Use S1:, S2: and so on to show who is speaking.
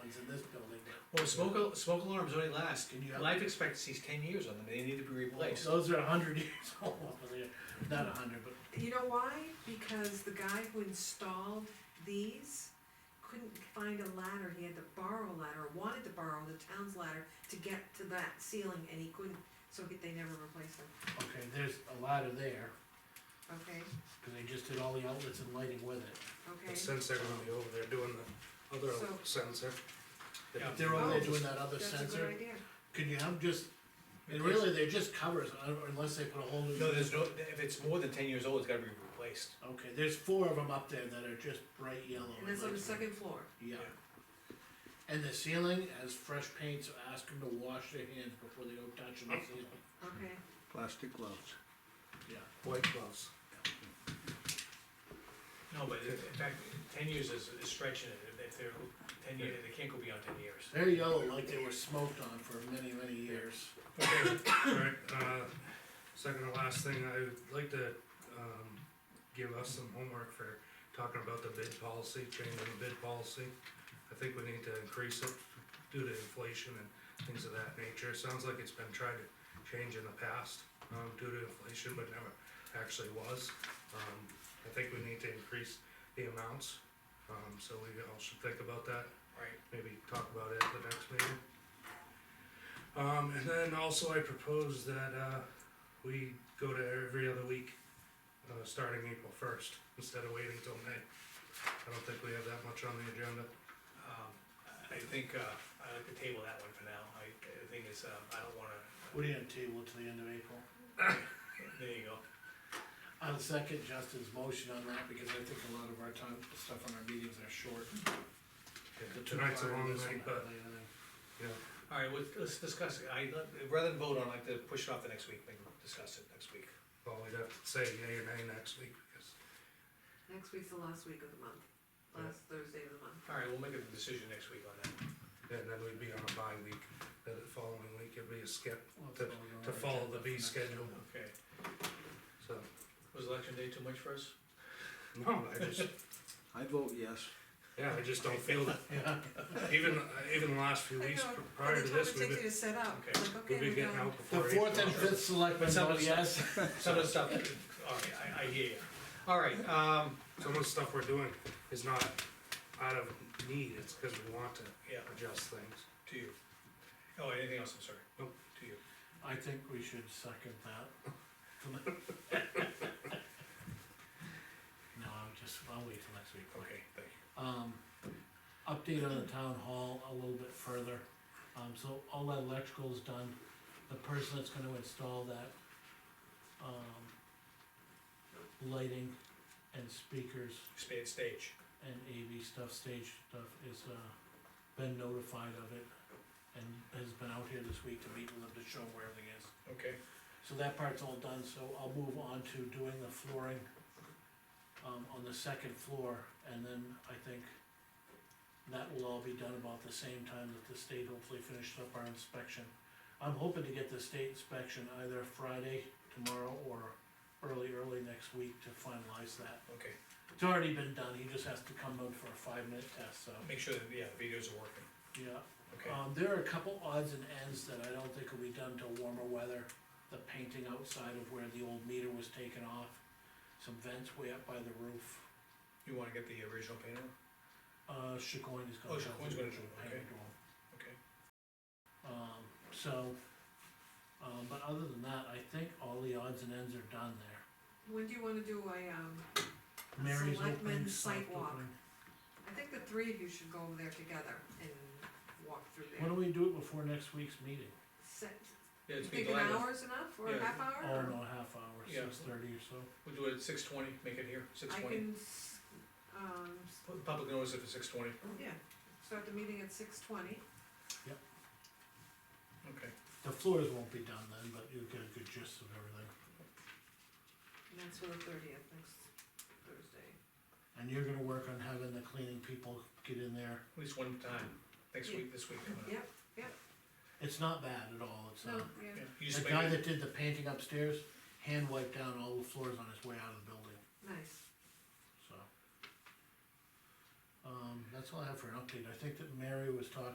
S1: Well, smoke, al- smoke alarms only last, and your life expectancy is ten years on them, they need to be replaced.
S2: Those are a hundred years old, yeah. not a hundred, but
S3: You know why? Because the guy who installed these couldn't find a ladder, he had to borrow a ladder, wanted to borrow the town's ladder to get to that ceiling, and he couldn't, so he- they never replaced them,
S2: Okay, there's a ladder there,
S3: okay,
S2: cause they just did all the outlets and lighting with it.
S3: okay?
S4: The sensor gonna be over there doing the other
S3: So-
S4: sensor.
S2: If They're over there doing that other
S3: Oh, That's a good
S2: sensor,
S3: idea.
S2: could you have just, and really, they're just covers, un- unless they put a whole new.
S1: No, there's no, if it's more than ten years old, it's gotta be replaced.
S2: Okay, there's four of them up there that are just bright yellow.
S3: And that's on the
S2: like-
S3: second floor,
S2: Yeah. And the ceiling has fresh paint, so ask them to wash their hands before they go touching the ceiling,
S3: okay?
S5: plastic gloves.
S2: yeah.
S4: White gloves.
S1: No, but in in fact, ten years is, is stretching it, If- if they're, ten years, they can't go beyond ten years.
S2: They're yellow like they were smoked on for many, many years.
S4: Okay, alright, uh, second to last thing, I would like to, um, give us some homework for talking about the bid policy, changing the bid policy. I think we need to increase it due to inflation and things of that nature, sounds like it's been tried to change in the past, um, due to inflation, but never actually was. Um, I think we need to increase the amounts, um, so we all should think about that
S1: Right.
S4: maybe talk about it at the next meeting. Um, and then also I propose that, uh, we go to every other week, uh, starting April first, instead of waiting till May. I don't think we have that much on the agenda.
S1: Um, I think, uh, I like to table that one for now, I, the thing is, um, I don't wanna,
S2: What are you gonna table till the end of April?
S1: there you go.
S2: I'll second Justin's motion on that, because I think a lot of our time, stuff on our meetings are short. The two
S4: Tonight's a long
S2: priorities and
S4: night, but, yeah,
S1: All right, well, let's discuss it, I, rather than vote on, I'd like to push it off the next week, maybe discuss it next week.
S4: well, we'd have to say yay or nay next week, because
S3: Next week's the last week of the month,
S4: Yeah.
S3: last Thursday of the month.
S1: All right, we'll make a decision next week on that.
S4: and then we'd be on a bye week, then the following week it'd be a skip
S2: Well, it's
S4: To-
S2: all on
S4: to
S2: our
S4: follow
S2: agenda
S4: the
S2: for
S4: B
S2: next-
S4: schedule,
S1: Okay,
S4: so.
S1: was election day too much for us?
S4: No, I just,
S5: I vote yes.
S4: yeah, I just don't feel,
S2: Yeah,
S4: even, uh, even the last few
S3: I
S4: weeks
S3: know,
S4: prior to this,
S3: And the
S4: we've
S3: time it
S4: been
S3: takes you to set up,
S1: Okay.
S3: like,
S4: We'll
S3: okay,
S4: be
S3: we're
S4: getting
S3: done.
S4: out
S2: the
S4: before.
S2: fourth
S4: April.
S2: and fifth selectmen
S1: Some of
S2: vote
S1: the
S2: yes.
S1: Some of the stuff, all right, I, I hear you. All right, um,
S4: Some of the stuff we're doing is not out of need, it's because we want to
S1: yeah,
S4: adjust things.
S1: to you. Oh, anything else, I'm sorry?
S4: Nope.
S1: To you.
S2: I think we should second that. No, I'll just, I'll wait till next week.
S1: Okay, thank you.
S2: Um, update on the town hall a little bit further, um, so all that electrical is done, the person that's gonna install that, um, lighting and speakers
S1: Expand stage.
S2: and AV stuff, stage stuff is, uh, been notified of it and has been out here this week to meet with them to show them where everything is.
S1: Okay,
S2: So that part's all done, so I'll move on to doing the flooring, um, on the second floor, and then I think that will all be done about the same time that the state hopefully finishes up our inspection. I'm hoping to get the state inspection either Friday, tomorrow, or early, early next week to finalize that.
S1: okay.
S2: It's already been done, he just has to come out for a five-minute test, so,
S1: Make sure that, yeah, the videos are working.
S2: yeah.
S1: Okay,
S2: Um, there are a couple odds and ends that I don't think will be done till warmer weather, the painting outside of where the old meter was taken off, some vents way up by the roof.
S1: you wanna get the original painting?
S2: Uh, Chacoin is
S1: Oh,
S2: gonna. help
S1: Chacoin's
S2: with
S1: gonna do it,
S2: the
S1: okay.
S2: painting room.
S1: Okay.
S2: Um, so, um, but other than that, I think all the odds and ends are done there.
S3: When do you wanna do a, um,
S2: Mary's opening,
S3: Selectmen's
S2: soft
S3: sidewalk.
S2: opening.
S3: I think the three of you should go over there together and walk through
S2: Why
S3: there.
S2: don't we do it before next week's meeting?
S3: Set,
S1: Yeah,
S3: you
S1: it's been
S3: think an
S1: glad.
S3: hour's enough, or
S1: Yeah.
S3: a half hour?
S2: Oh,
S3: or-
S2: no, half hour,
S1: Yeah.
S2: six thirty or so.
S1: We'll do it at six twenty, make it here, six
S3: I
S1: twenty.
S3: can, s- um, s- oh,
S1: Public notice if it's six twenty.
S3: yeah, start the meeting at six twenty,
S1: Okay,
S2: The floors won't be done then, but you'll get a good gist of everything.
S3: and that's for the thirtieth, next Thursday.
S2: And you're gonna work on having the cleaning people get in there.
S1: at least one time, next
S3: Yeah.
S1: week, this week coming up.
S3: Yep,
S2: It's not bad at all, it's,
S3: no,
S2: uh,
S3: yeah,
S1: Yeah, You just
S2: the
S1: make
S2: guy
S1: it,
S2: that did the painting upstairs, hand wiped down all the floors on his way out of the building,
S3: nice,
S2: so. Um, that's all I have for an update, I think that Mary was talking